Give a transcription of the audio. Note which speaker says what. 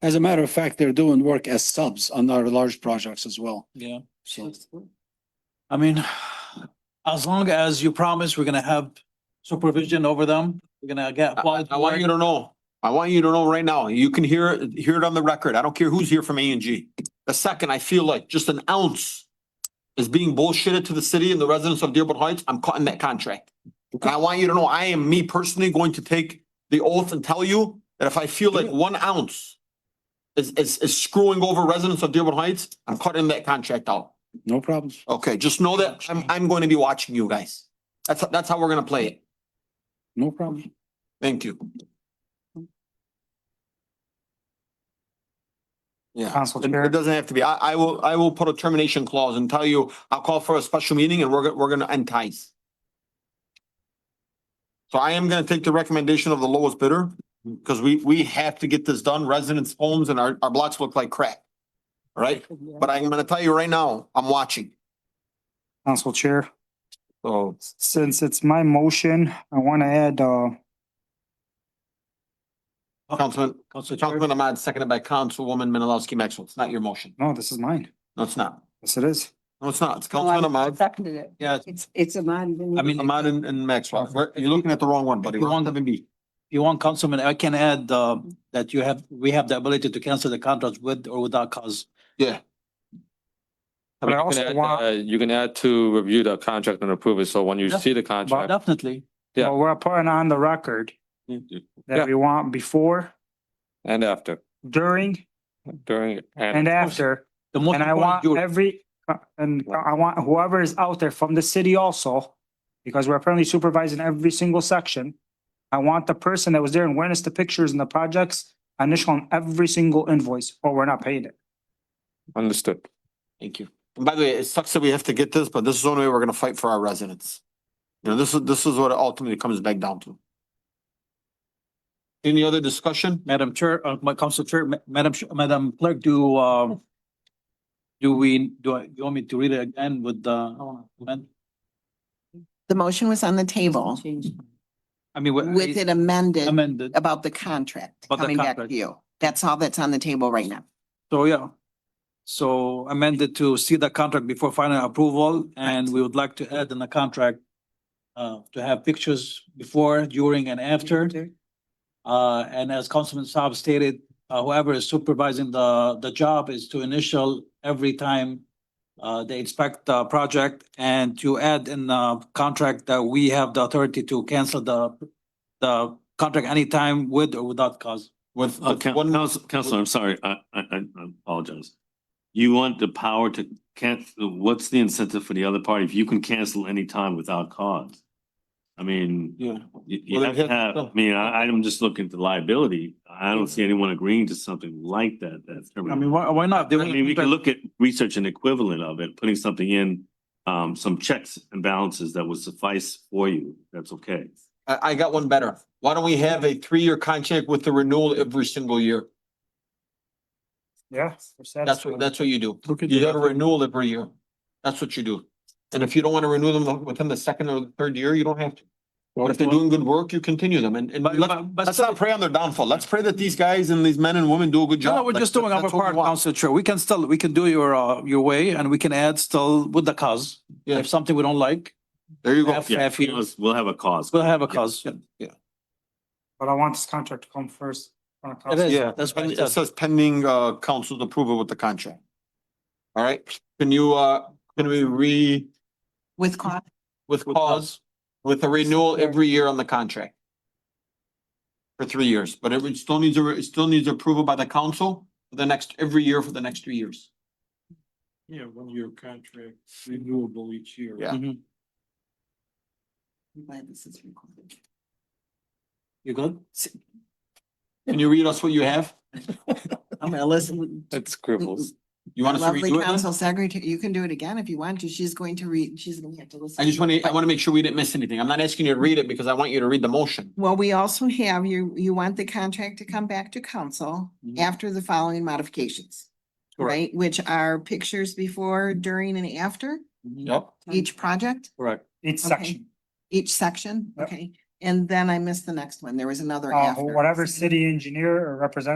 Speaker 1: As a matter of fact, they're doing work as subs on our large projects as well.
Speaker 2: Yeah,
Speaker 1: So
Speaker 2: I mean, as long as you promise we're gonna have supervision over them, we're gonna get.
Speaker 3: I I want you to know, I want you to know right now, you can hear, it- hear it on the record. I don't care who's here from A and G. The second I feel like just an ounce is being bullshitted to the city and the residents of Dearborn Heights, I'm cutting that contract. And I want you to know, I am me personally going to take the oath and tell you that if I feel like one ounce is, is, is screwing over residents of Dearborn Heights, I'm cutting that contract out.
Speaker 1: no problems.
Speaker 3: Okay, just know that I'm, I'm going to be watching you guys. That's, that's how we're gonna play it.
Speaker 1: No problem.
Speaker 3: Thank you. Yeah,
Speaker 4: Council
Speaker 3: and it
Speaker 4: Chair,
Speaker 3: doesn't have to be. I, I will, I will put a termination clause and tell you, I'll call for a special meeting and we're, go- we're gonna end ties. So I am gonna take the recommendation of the lowest bidder, because we, we have to get this done. Residents' homes and our, our blocks look like crap. All Right? But I'm gonna tell you right now, I'm watching.
Speaker 4: Council Chair,
Speaker 3: So
Speaker 4: since it's my motion, I want to add, uh,
Speaker 3: Councilman,
Speaker 2: Council Chair.
Speaker 3: Councilman Ahmad, seconded by Councilwoman Menalowski Maxwell. It's not your motion.
Speaker 4: no, this is mine.
Speaker 3: No, it's not.
Speaker 4: Yes, it is.
Speaker 3: No, it's not. It's
Speaker 5: No, I
Speaker 3: Councilman Ahmad.
Speaker 5: Seconded it.
Speaker 3: Yeah, it's
Speaker 5: eh, It's, it's a man.
Speaker 2: I mean,
Speaker 3: Ahmad and, and Maxwell. We're- You're looking at the wrong one, buddy.
Speaker 2: The
Speaker 3: We're on
Speaker 2: wrong-
Speaker 3: seven B.
Speaker 2: you want councilman, I can add, uh, that you have, we have the ability to cancel the contract with or without cause.
Speaker 4: But I
Speaker 6: You can
Speaker 4: also
Speaker 6: add,
Speaker 4: want-
Speaker 6: uh, You can add to review the contract and approve it, so when you
Speaker 2: Yeah.
Speaker 6: see the contract.
Speaker 2: Definitely.
Speaker 6: Yeah.
Speaker 4: But we're putting on the record
Speaker 6: Yeah.
Speaker 4: that we want before,
Speaker 6: And after,
Speaker 4: during,
Speaker 6: during,
Speaker 4: and
Speaker 6: and,
Speaker 4: after.
Speaker 2: The most
Speaker 4: And I
Speaker 2: important
Speaker 4: want
Speaker 2: duty.
Speaker 4: every, uh, and I want whoever is out there from the city also, because we're apparently supervising every single section. I want the person that was there and witnessed the pictures and the projects initial on every single invoice, or we're not paying it.
Speaker 6: understood.
Speaker 3: Thank you. And by the way, it sucks that we have to get this, but this is the only way we're gonna fight for our residents. You know, this is, this is what it ultimately comes back down to. Any other discussion?
Speaker 2: Madam Chair, uh, my council chair, Ma- Madam, Ch- Madam Clerk, do, um, do we, do I, you want me to read it again with the, amend-
Speaker 7: The motion was on the table
Speaker 2: I mean, with-
Speaker 7: with it amended
Speaker 2: amended?
Speaker 7: about the contract
Speaker 2: About the
Speaker 7: coming back to
Speaker 2: contract.
Speaker 7: you. That's all that's on the table right now.
Speaker 2: So, yeah. So amended to see the contract before final approval, and we would like to add in the contract uh, to have pictures before, during, and after. Uh, and as Councilman Saab stated, uh, whoever is supervising the, the job is to initial every time uh, they inspect the project and to add in the contract that we have the authority to cancel the, the contract anytime with or without cause.
Speaker 3: With,
Speaker 8: Uh,
Speaker 3: with
Speaker 8: coun-
Speaker 3: one,
Speaker 8: council, councilor, I'm sorry, I, I, I I apologize. You want the power to cancel, what's the incentive for the other party if you can cancel any time without cause? I mean, you,
Speaker 3: yeah,
Speaker 8: you
Speaker 3: Well,
Speaker 8: have
Speaker 3: they
Speaker 8: to have, I mean, I, I'm just looking to liability. I don't see anyone agreeing to something like that, that's.
Speaker 2: I mean, why, why not? They
Speaker 8: I mean, we can look at research and equivalent of it, putting something in, um, some checks and balances that would suffice for you, that's okay.
Speaker 3: I, I got one better. Why don't we have a three-year contract with the renewal every single year?
Speaker 4: Yeah.
Speaker 3: That's what, that's what you do.
Speaker 2: Look at
Speaker 3: You
Speaker 2: the-
Speaker 3: have a renewal every year. That's what you do. And if you don't want to renew them within the second or the third year, you don't have to. But if they're doing good work, you continue them and, and
Speaker 2: But-
Speaker 3: let's,
Speaker 2: but- but
Speaker 3: let's not pray on their downfall. Let's pray that these guys and these men and women do a good
Speaker 2: No,
Speaker 3: job.
Speaker 2: no, we're
Speaker 3: Like,
Speaker 2: just doing
Speaker 3: that's
Speaker 2: our
Speaker 3: what we
Speaker 2: part,
Speaker 3: want.
Speaker 2: Council Chair. We can still, we can do your, uh, your way and we can add still with the cause.
Speaker 3: Yeah.
Speaker 2: If something we don't like,
Speaker 3: There you go.
Speaker 2: F-
Speaker 8: Yeah,
Speaker 2: Fair fee.
Speaker 8: we'll have a cause.
Speaker 2: we'll have a cause. It
Speaker 4: But I want this contract to come first. uh,
Speaker 2: is,
Speaker 3: Yeah.
Speaker 2: that's what
Speaker 3: And
Speaker 2: it
Speaker 3: It
Speaker 2: says.
Speaker 3: says pending, uh, council's approval with the contract. All right, can you, uh, can we re,
Speaker 7: With cost,
Speaker 3: with cause, with a renewal every year on the contract? For three years, but it still needs, a- it still needs approval by the council for the next, every year for the next three years.
Speaker 9: Yeah, one year contract, renewable each year.
Speaker 3: Yeah.
Speaker 2: Mhm.
Speaker 7: I'm glad this is recorded.
Speaker 2: You good?
Speaker 3: Can you read us what you have?
Speaker 7: I'm gonna listen.
Speaker 6: It scribbles.
Speaker 3: You want us to
Speaker 7: Lovely
Speaker 3: redo it? then?
Speaker 7: council secretary, you can do it again if you want to. She's going to read, she's gonna have to listen.
Speaker 3: I just want to, I want to make sure we didn't miss anything. I'm not asking you to read it because I want you to read the motion.
Speaker 7: Well, we also have, you, you want the contract to come back to council
Speaker 3: Mm-hmm.
Speaker 2: Mhm.
Speaker 7: after the following modifications.
Speaker 2: Correct.
Speaker 7: Right, which are pictures before, during and after
Speaker 2: Mm-hmm.
Speaker 3: Yep.
Speaker 7: each project?
Speaker 2: Correct.
Speaker 4: Each
Speaker 7: Okay.
Speaker 4: section,
Speaker 7: Each section,
Speaker 4: Yep.
Speaker 7: okay, and then I missed the next one, there was another
Speaker 4: uh,
Speaker 7: after.
Speaker 4: whatever city engineer or representative